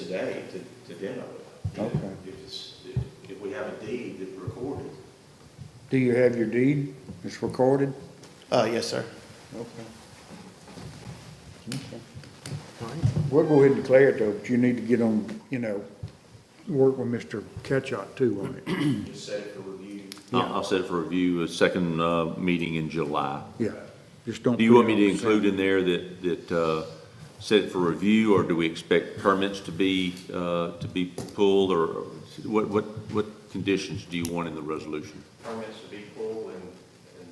today to, to demo it. Okay. If it's, if- if we have a deed that recorded, Do you have your deed? It's recorded? Uh, yes, sir. Okay. We'll go ahead and declare it though, but you need to get on, you know, work with Mr. Ketchot too on it. just set it for review. I'll I'll set it for review, a second uh, meeting in July. Yeah, just don't. Do you put want it me to on the same- include in there that, that uh, set it for review, or do we expect permits to be, uh, to be pulled, or or what, what, what conditions do you want in the resolution? Permits to be pulled and, and,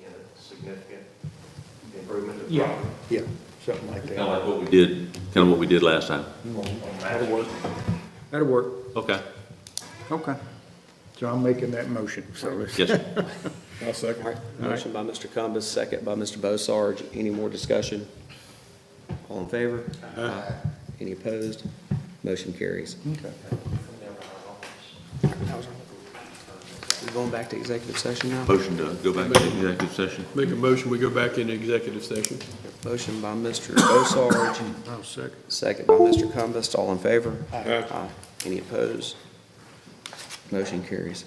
you know, significant improvement of Yeah, property. yeah, something like Kind of that. like what we did, kind of what we did last time. That'll work. That'll work. Okay, Okay. So I'm making that motion, so let's. yes, sir. I'll second. Motion by Mr. Cumbus, second by Mr. Bossarge. Any more discussion? All in favor? Aye. Any opposed? Motion carries. Okay. We're going back to executive session now. Motion to go back to executive session. Make a motion, we go back into executive session. Motion by Mr. Bossarge, I'll second. second by Mr. Cumbus. All in favor? Aye. Any opposed? Motion carries.